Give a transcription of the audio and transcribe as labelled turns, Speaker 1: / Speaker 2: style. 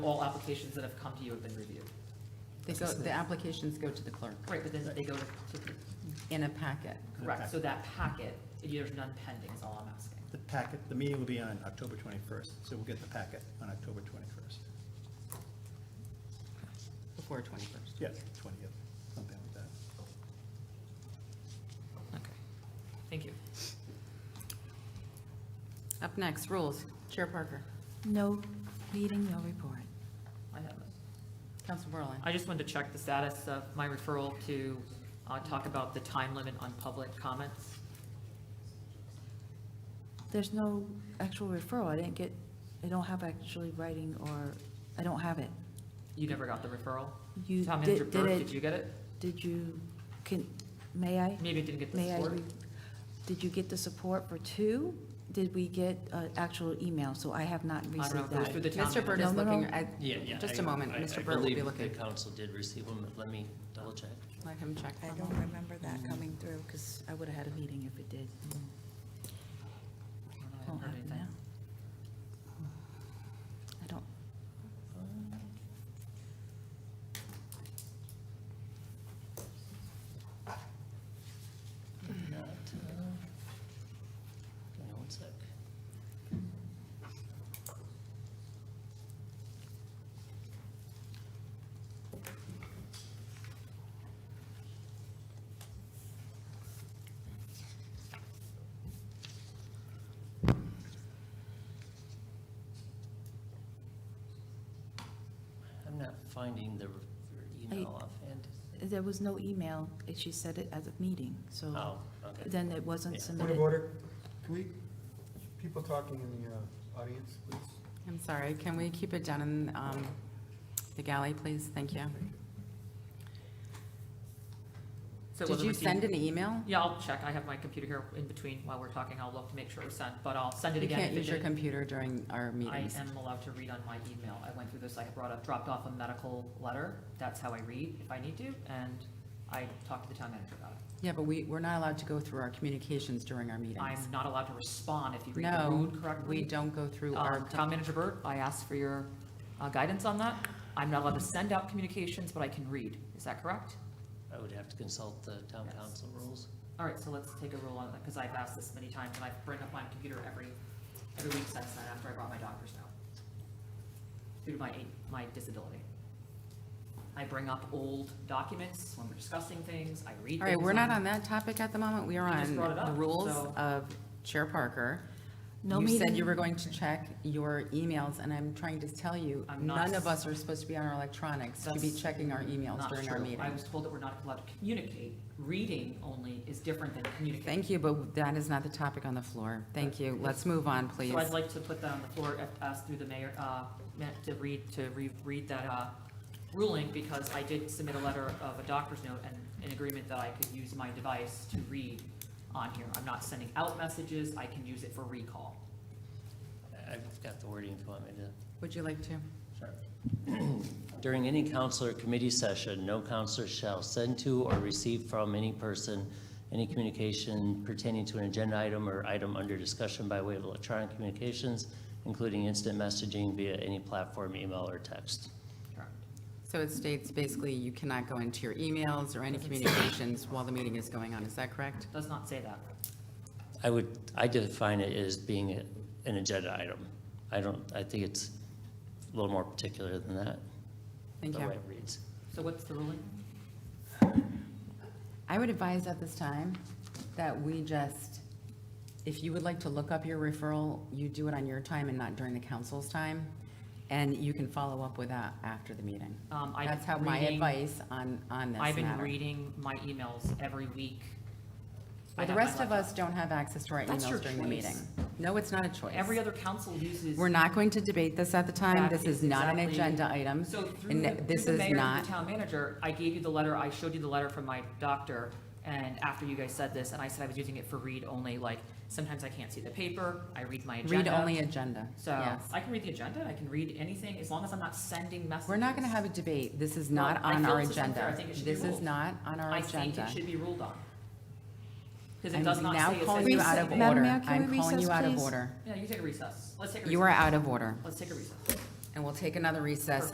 Speaker 1: all applications that have come to you have been reviewed.
Speaker 2: They go, the applications go to the clerk
Speaker 1: Right, but then they go to,
Speaker 2: in a packet.
Speaker 1: correct, so that packet, there's none pending is all I'm asking.
Speaker 3: The packet, the meeting will be on October 21st, so we'll get the packet on October 21st.
Speaker 2: Before 21st.
Speaker 3: Yes, 20th, something like that.
Speaker 1: Okay, thank you.
Speaker 2: Up next, rules. Chair Parker,
Speaker 4: No meeting, no report.
Speaker 1: I have it.
Speaker 2: Council Berlin.
Speaker 1: I just wanted to check the status of my referral to uh, talk about the time limit on public comments.
Speaker 4: There's no actual referral. I didn't get, I don't have actually writing or, I don't have it.
Speaker 1: You never got the referral?
Speaker 4: You
Speaker 1: Town Manager
Speaker 4: did, did
Speaker 1: Burke,
Speaker 4: it,
Speaker 1: did you get it?
Speaker 4: did you, can, may I?
Speaker 1: Maybe it didn't get the
Speaker 4: May I?
Speaker 1: support?
Speaker 4: re- Did you get the support for two? Did we get uh, actual email? So I have not
Speaker 1: I don't know,
Speaker 4: received
Speaker 1: if it was
Speaker 4: that.
Speaker 1: through the town.
Speaker 2: Mr. Bird
Speaker 1: manager.
Speaker 2: is
Speaker 4: No, no,
Speaker 2: looking,
Speaker 4: no.
Speaker 2: I-
Speaker 5: Yeah, yeah.
Speaker 2: just a
Speaker 5: I-
Speaker 2: moment,
Speaker 5: I-
Speaker 2: Mr. Bird will
Speaker 5: I
Speaker 2: be
Speaker 5: believe the
Speaker 2: looking.
Speaker 5: council did receive them, but let me double check.
Speaker 2: Let him check. for
Speaker 4: I
Speaker 2: a
Speaker 4: don't
Speaker 2: moment.
Speaker 4: remember that coming through because I would have had a meeting if it did.
Speaker 1: I
Speaker 4: Mm.
Speaker 1: don't know, I haven't
Speaker 4: Won't
Speaker 1: heard
Speaker 4: happen
Speaker 1: anything.
Speaker 4: now. I don't,
Speaker 5: Not, uh, hang on one sec. I'm not finding the the
Speaker 4: I-
Speaker 5: email offhand.
Speaker 4: there was no email. and She said it at the meeting, so.
Speaker 5: Oh, okay.
Speaker 4: Then it wasn't
Speaker 5: Yeah.
Speaker 6: Point of
Speaker 4: submitted.
Speaker 6: order, can we, people talking in the uh, audience, please?
Speaker 2: I'm sorry, can we keep it down in um, the galley, please? Thank you.
Speaker 1: So it
Speaker 2: Did
Speaker 1: wasn't
Speaker 2: you
Speaker 1: received?
Speaker 2: send an email?
Speaker 1: Yeah, I'll check. I have my computer here in between while we're talking. I'll look to make sure it was sent, but I'll send it
Speaker 2: You
Speaker 1: again.
Speaker 2: can't
Speaker 1: if it
Speaker 2: use your
Speaker 1: didn't.
Speaker 2: computer during our
Speaker 1: I
Speaker 2: meetings.
Speaker 1: am allowed to read on my email. I went through this, I brought up, dropped off a medical letter. That's how I read if I need to, and I talked to the town manager about it.
Speaker 2: Yeah, but we, we're not allowed to go through our communications during our meetings.
Speaker 1: I'm not allowed to respond if you read the
Speaker 2: No,
Speaker 1: rude correctly.
Speaker 2: we don't go through our.
Speaker 1: Um, Town Manager Burt, I asked for your uh, guidance on that. I'm not allowed to send out communications, but I can read. Is that correct?
Speaker 5: I would have to consult the town
Speaker 1: Yes.
Speaker 5: council rules.
Speaker 1: All right, so let's take a roll on that, because I've asked this many times, and I bring up my computer every, every week since then, after I brought my doctor's note. Due to my, my disability. I bring up old documents when we're discussing things, I read things.
Speaker 2: All right, we're not on that topic at the moment. We are
Speaker 1: You just
Speaker 2: on
Speaker 1: brought it
Speaker 2: the
Speaker 1: up,
Speaker 2: rules
Speaker 1: so-
Speaker 2: of Chair Parker.
Speaker 4: No
Speaker 2: You said
Speaker 4: meeting.
Speaker 2: you were going to check your emails, and I'm trying to tell you,
Speaker 1: I'm not-
Speaker 2: none of us are supposed to be on our electronics to be
Speaker 1: That's
Speaker 2: checking our emails
Speaker 1: Not
Speaker 2: during our
Speaker 1: true. I was
Speaker 2: meetings.
Speaker 1: told that we're not allowed to communicate. Reading only is different than communicating.
Speaker 2: Thank you, but that is not the topic on the floor. Thank you. Let's move on, please.
Speaker 1: So I'd like to put that on the floor, uh, ask through the mayor, uh, meant to read, to reread that uh, ruling, because I did submit a letter of a doctor's note and an agreement that I could use my device to read on here. I'm not sending out messages, I can use it for recall.
Speaker 5: I've got the wording if you want me to.
Speaker 2: Would you like to?
Speaker 5: During any council or committee session, no counselor shall send to or receive from any person any communication pertaining to an agenda item or item under discussion by way of electronic communications, including instant messaging via any platform, email, or text.
Speaker 1: Correct.
Speaker 2: So it states basically you cannot go into your emails or any communications while the meeting is going on. Is that correct?
Speaker 1: Does not say that.
Speaker 5: I would, I define it as being a- an agenda item. I don't, I think it's a little more particular than that,
Speaker 2: Thank
Speaker 5: the way
Speaker 2: you.
Speaker 5: it reads.
Speaker 1: So what's the ruling?
Speaker 2: I would advise at this time that we just, if you would like to look up your referral, you do it on your time and not during the council's time. And you can follow up with that after the meeting.
Speaker 1: Um, I've
Speaker 2: That's how
Speaker 1: been
Speaker 2: my
Speaker 1: reading-
Speaker 2: advice on, on this
Speaker 1: I've been
Speaker 2: matter.
Speaker 1: reading my emails every week. I
Speaker 2: Well, the
Speaker 1: have my
Speaker 2: rest of
Speaker 1: laptop.
Speaker 2: us don't have access to our
Speaker 1: That's your
Speaker 2: emails during the
Speaker 1: choice.
Speaker 2: meeting. No, it's not a choice.
Speaker 1: Every other council uses.
Speaker 2: We're not going to debate this at the time.
Speaker 1: That
Speaker 2: This is not an
Speaker 1: exactly-
Speaker 2: agenda item.
Speaker 1: So through
Speaker 2: and
Speaker 1: the,
Speaker 2: this
Speaker 1: through the mayor
Speaker 2: is
Speaker 1: and
Speaker 2: not-
Speaker 1: the town manager, I gave you the letter, I showed you the letter from my doctor, and after you guys said this, and I said I was using it for read only, like, sometimes I can't see the paper, I read my
Speaker 2: Read
Speaker 1: agenda.
Speaker 2: only agenda,
Speaker 1: So
Speaker 2: yes.
Speaker 1: I can read the agenda, I can read anything, as long as I'm not sending messages.
Speaker 2: We're not going to have a debate. This is
Speaker 1: Well,
Speaker 2: not
Speaker 1: I
Speaker 2: on
Speaker 1: feel
Speaker 2: our
Speaker 1: this is unfair. I
Speaker 2: agenda.
Speaker 1: think it should be
Speaker 2: This is
Speaker 1: ruled.
Speaker 2: not on our
Speaker 1: I think
Speaker 2: agenda.
Speaker 1: it should be ruled on. Because it
Speaker 2: I'm
Speaker 1: does not
Speaker 2: now
Speaker 1: say it
Speaker 2: calling
Speaker 1: says-
Speaker 2: you out of
Speaker 4: Recess- Madam
Speaker 2: order.
Speaker 4: Mayor, can
Speaker 2: I'm
Speaker 4: we
Speaker 2: calling you
Speaker 4: recess,
Speaker 2: out of
Speaker 4: please?
Speaker 2: order.
Speaker 1: Yeah, you take a recess, let's take a recess.
Speaker 2: You are out of order.
Speaker 1: Let's take a recess.
Speaker 2: And we'll take another recess